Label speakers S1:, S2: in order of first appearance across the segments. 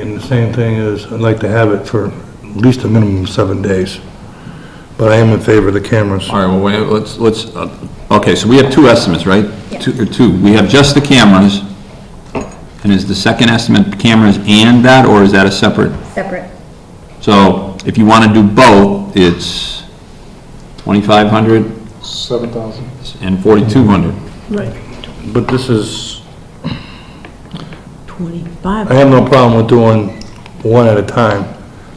S1: And the same thing is, I'd like to have it for at least a minimum of seven days, but I am in favor of the cameras.
S2: All right, well, wait, let's, let's, uh, okay, so we have two estimates, right?
S3: Yeah.
S2: Two- or Two, we have just the cameras, and is the second estimate cameras and that, or is that a separate?
S3: Separate.
S2: So if you want to do both, it's 2,500
S4: Seven thousand.
S2: and 4,200.
S1: But this is,
S5: 25.
S1: I have no problem with doing one at a time,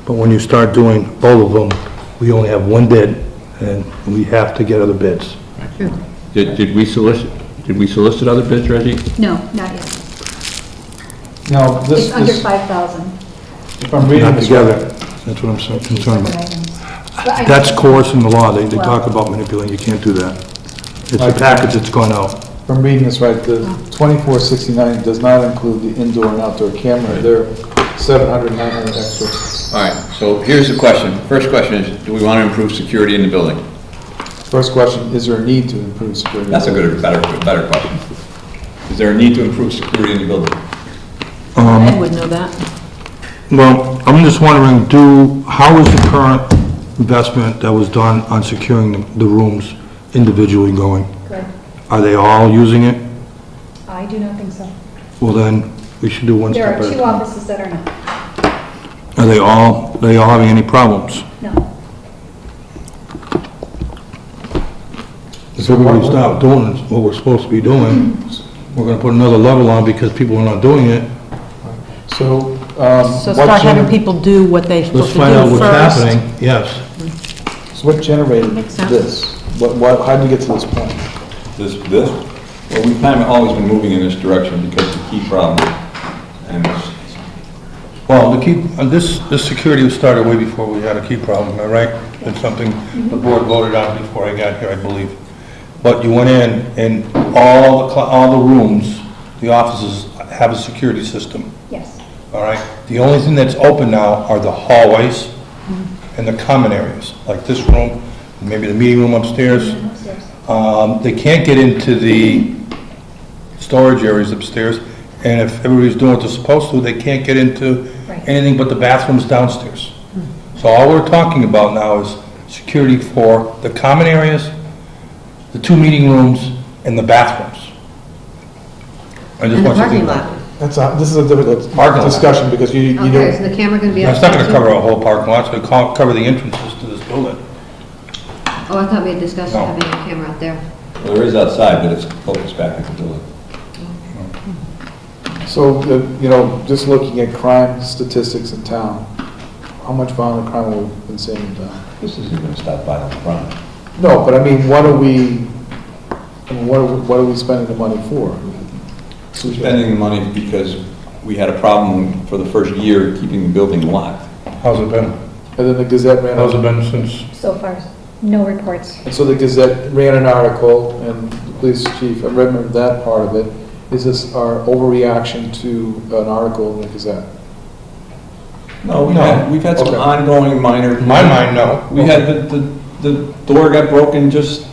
S1: but when you start doing both of them, we only have one bid, and we have to get other bids.
S2: Did, did we solicit, did we solicit other bids, Reggie?
S3: No, not yet.
S4: Now, this
S3: It's under
S4: is,
S3: 5,000.
S4: if I'm reading
S1: Not
S4: this
S1: together,
S4: right,
S1: that's what I'm so
S3: Two
S1: concerned
S3: separate
S1: about.
S3: items. But I-
S1: That's course in the law, they, they talk about manipulating, you can't do that. It's a package that's going out.
S4: if I'm reading this right, the twenty-four sixty-nine does not include the indoor and outdoor camera. There are seven hundred, nine hundred extra.
S6: All right, so here's the question. First question is, do we want to improve security in the building?
S4: First question, is there a need to improve security?
S6: That's a good, better, better question. Is there a need to improve security in the building?
S5: I would know that.
S1: Well, I'm just wondering, do, how is the current investment that was done on securing the- the rooms individually going?
S3: Correct.
S1: Are they all using it?
S3: I do not think so.
S1: Well, then, we should do one
S3: There
S1: step
S3: are
S1: at a
S3: two
S1: time.
S3: offices that are not.
S1: Are they all, are they all having any problems?
S3: No.
S1: If everybody stop doing what we're supposed to be doing, we're gonna put another level on because people are not doing it.
S4: So, um,
S5: So
S4: what
S5: start having
S4: gener-
S5: people do what they're
S1: Let's
S5: supposed to do
S1: find out what's
S5: first.
S1: happening, yes.
S4: so what generated
S5: Makes sense.
S4: this? What, what, how did you get to this point?
S6: This, this? Well, we've kind of always been moving in this direction because the key problem, and it's-
S1: Well, the key, uh, this, this security was started way before we had a key problem, am I right? It's something the board voted on before I got here, I believe. But you went in, and all the, cl- all the rooms, the offices have a security system,
S3: Yes.
S1: all right? The only thing that's open now are the hallways and the common areas, like this room, maybe the meeting room upstairs.
S3: Upstairs.
S1: Um, They can't get into the storage areas upstairs, and if everybody's doing what they're supposed to, they can't get into
S3: Right.
S1: anything but the bathrooms downstairs. So all we're talking about now is security for the common areas, the two meeting rooms, and the bathrooms. I just
S7: And the
S1: want you to
S7: parking
S1: think about-
S7: lot.
S4: That's a, this is a
S1: Parking
S4: difficult
S1: lot.
S4: discussion because you, you
S7: Okay, is
S4: don't,
S7: the camera going to be
S1: Now,
S7: up?
S1: It's not gonna cover a whole parking lot, it's gonna co- cover the entrances to this building.
S7: Oh, I thought we had discussed
S1: No.
S7: having a camera out there.
S6: well, there is outside, but it's focused back at the building.
S4: so, uh, you know, just looking at crime statistics in town, how much violent crime have we been seeing in town?
S6: This isn't going to stop violent crime.
S4: No, but I mean, what are we, I mean, what are, we- what are we spending the money for?
S6: We're spending the money because we had a problem for the first year keeping the building locked.
S1: How's it been?
S4: And then the Gazette ran,
S1: How's
S4: a-
S1: it been since?
S3: So far, no reports.
S4: and so the Gazette ran an article, and the police chief, I remember that part of it. Is this our overreaction to an article in the Gazette?
S6: No, we've
S1: Oh, No.
S6: had, we've had some
S4: Okay.
S6: ongoing minor.
S1: In my mind, no.
S6: We had, the, the, the door got broken just.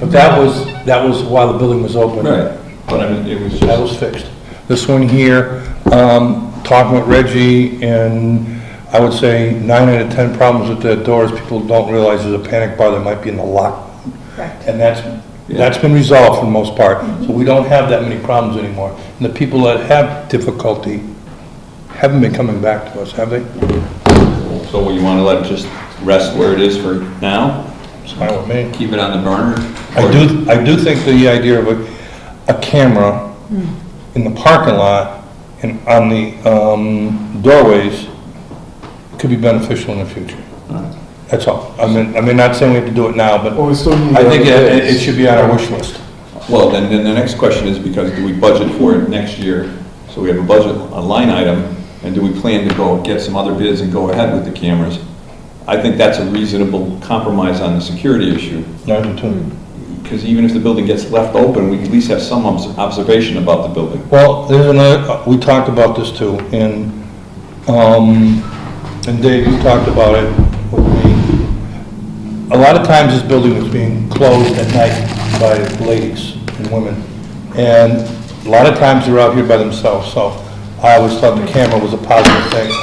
S1: But that was, that was while the building was open.
S6: But I mean, it was
S1: That
S6: just,
S1: was fixed. This one here, um, talking with Reggie, and I would say nine out of 10 problems with the doors, people don't realize there's a panic bar that might be in the lock.
S3: Correct.
S1: And that's, that's been resolved for the most part, so we don't have that many problems anymore. And the people that have difficulty haven't been coming back to us, have they?
S6: so what, you want to let it just rest where it is for now?
S1: It's fine with me.
S6: Keep it on the burner?
S1: I do, I do think the idea of a, a camera in the parking lot and on the um, doorways could be beneficial in the future. That's all. I mean, I mean, not saying we have to do it now, but
S4: Well, we still need.
S1: I think
S4: other
S1: it,
S4: bids.
S1: it should be on our wish list.
S6: Well, then, then the next question is because do we budget for it next year? So we have a budget, a line item, and do we plan to go get some other bids and go ahead with the cameras? I think that's a reasonable compromise on the security issue,
S1: I do too.
S6: because even if the building gets left open, we at least have some obs- observation about the building.
S1: Well, there's another, uh, we talked about this too, and, um, and Dave, you talked about it with me. A lot of times this building was being closed at night by ladies and women, and a lot of times they're out here by themselves, so I always thought the camera was a positive thing.